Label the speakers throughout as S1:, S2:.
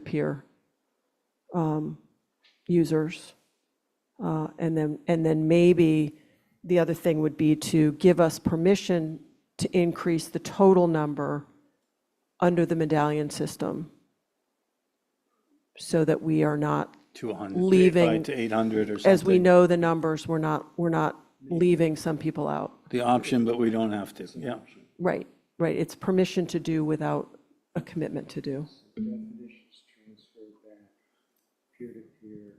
S1: peer-to-peer um, users. Uh, And then, and then maybe the other thing would be to give us permission to increase the total number under the medallion system so that we are not,
S2: 200.
S1: leaving-
S2: To 800 or something.
S1: as we know the numbers, we're not, we're not leaving some people out.
S2: The option, but we don't have to, yeah.
S1: Right, right. It's permission to do without a commitment to do.
S3: definitions transferred back, peer-to-peer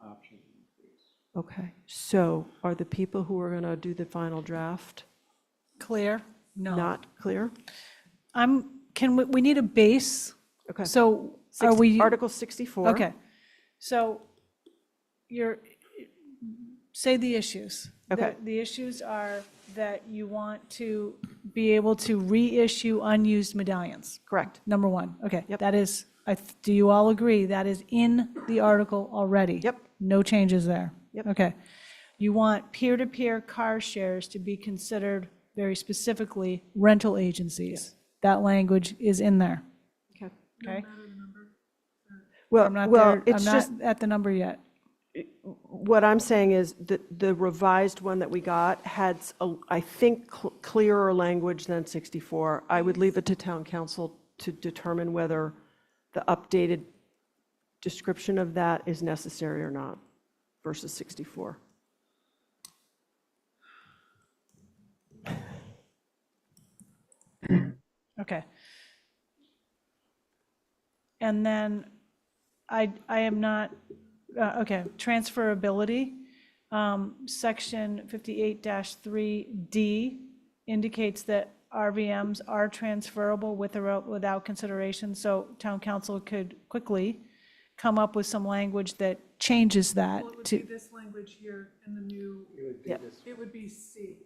S3: option increase.
S1: Okay, so are the people who are going to do the final draft
S4: Clear? No.
S1: not clear?
S4: I'm, can, we, we need a base?
S1: Okay.
S4: So are
S1: Six-
S4: we?
S1: Article 64.
S4: Okay. So you're, say the issues. The-
S1: Okay.
S4: The issues are that you want to be able to reissue unused medallions.
S1: Correct.
S4: Number one, okay.
S1: Yep.
S4: That is, I th- do you all agree, that is in the article already?
S1: Yep.
S4: No changes there?
S1: Yep.
S4: Okay. You want peer-to-peer car shares to be considered very specifically rental agencies. That language is in there,
S1: Okay.
S4: okay?
S1: Well,
S4: I'm not
S1: Uh, well,
S4: there, I'm
S1: it's just,
S4: not at the number yet.
S1: what I'm saying is that the revised one that we got had, s- a- I think, cl- clearer language than 64. I would leave it to town council to determine whether the updated description of that is necessary or not versus 64.
S4: Okay. And then I, I am not, uh, okay, transferability. Um, Section 58-3D indicates that RVMs are transferable with or without consideration, so town council could quickly come up with some language that changes that
S5: Well, it would be
S4: to,
S5: this language here and the new,
S3: It would be
S1: Yeah.
S3: this,
S5: it would be C.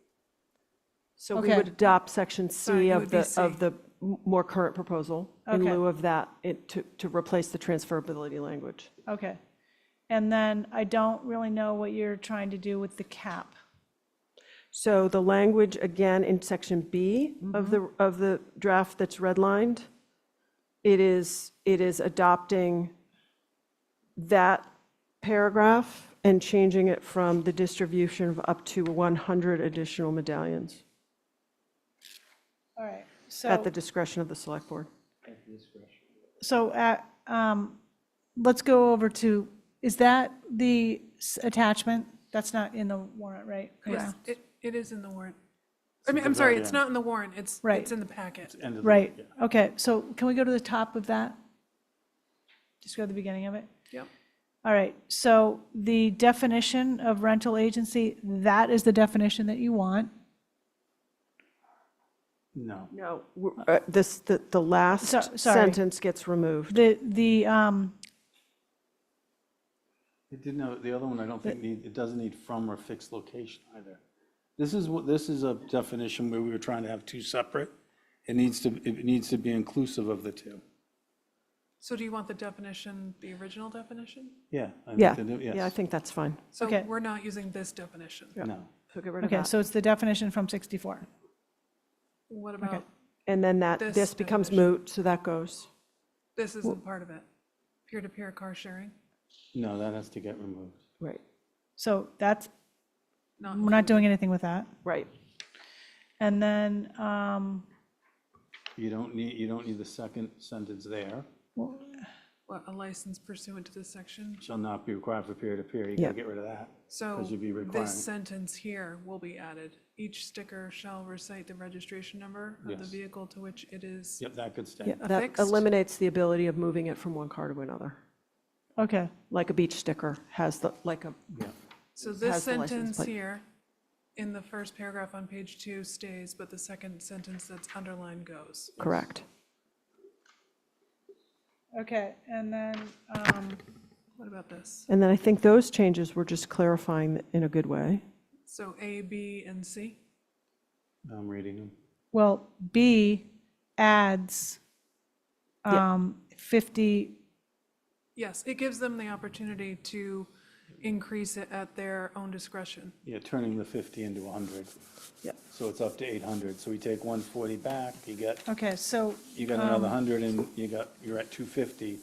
S1: So we
S4: Okay.
S1: would adopt section
S5: Sorry,
S1: C
S5: it
S1: of
S5: would be
S1: the,
S5: C.
S1: of the m- more current proposal in
S4: Okay.
S1: lieu of that, it- to, to replace the transferability language.
S4: okay. And then I don't really know what you're trying to do with the cap.
S1: So the language, again, in section B of the, of the draft that's redlined, it is, it is adopting that paragraph and changing it from the distribution of up to 100 additional medallions
S4: All right, so.
S1: at the discretion of the select board.
S3: at the discretion.
S4: So uh, um, let's go over to, is that the s- attachment? That's not in the warrant, right?
S5: Yes,
S4: Yeah.
S5: It, it is in the warrant. I mean, I'm sorry, it's not in the warrant, it's,
S4: Right.
S5: it's in the packet.
S2: End of the-
S4: Right, okay, so can we go to the top of that? Just go to the beginning of it?
S5: Yep.
S4: All right, so the definition of rental agency, that is the definition that you want.
S2: No.
S1: No. uh, This, the, the last
S4: So- sorry.
S1: sentence gets removed.
S4: The, the, um,
S2: It didn't, have- the other one, I don't think need, it doesn't need from or fixed location either. This is, what this is a definition where we were trying to have two separate. It needs to, it needs to be inclusive of the two.
S5: So do you want the definition, the original definition?
S2: Yeah. I think
S1: Yeah,
S2: they do,
S1: yeah, I
S2: yes.
S1: think that's fine.
S5: So
S4: Okay.
S5: we're not using this definition.
S2: No.
S1: So get rid of
S4: okay,
S1: that.
S4: so it's the definition from 64.
S5: What about,
S1: And then that,
S5: this
S1: this becomes
S5: definition.
S1: moot, so that goes.
S5: this isn't part of it, peer-to-peer car sharing?
S2: No, that has to get removed.
S1: Right,
S4: So that's,
S5: Not,
S4: we're not doing anything with that.
S1: right.
S4: And then, um,
S2: You don't need, you don't need the second sentence there.
S5: what, a license pursuant to this section?
S2: Shall not be required for peer-to-peer. You
S1: Yeah.
S2: gotta get rid of that.
S5: So
S2: Because you'd be requiring.
S5: this sentence here will be added. Each sticker shall recite the registration number of the
S2: Yes.
S5: vehicle to which it is
S2: Yep, that could stay.
S1: Yeah, that
S5: Affixed.
S1: eliminates the ability of moving it from one car to another,
S4: okay.
S1: like a beach sticker has the, like a,
S2: Yeah.
S5: So
S1: has
S5: this
S1: the license
S5: sentence
S1: plate.
S5: here, in the first paragraph on page two stays, but the second sentence that's underlined goes.
S1: correct.
S4: Okay, and then, um,
S5: What about this?
S1: And then I think those changes were just clarifying in a good way.
S5: So A, B, and C?
S2: I'm reading them.
S4: well, B adds
S1: Yeah.
S4: um, 50,
S5: Yes, it gives them the opportunity to increase it at their own discretion.
S2: Yeah, turning the 50 into 100.
S1: Yep.
S2: So it's up to 800. So we take 140 back, you got,
S4: Okay, so
S2: you got another 100, and you got, you're at 250.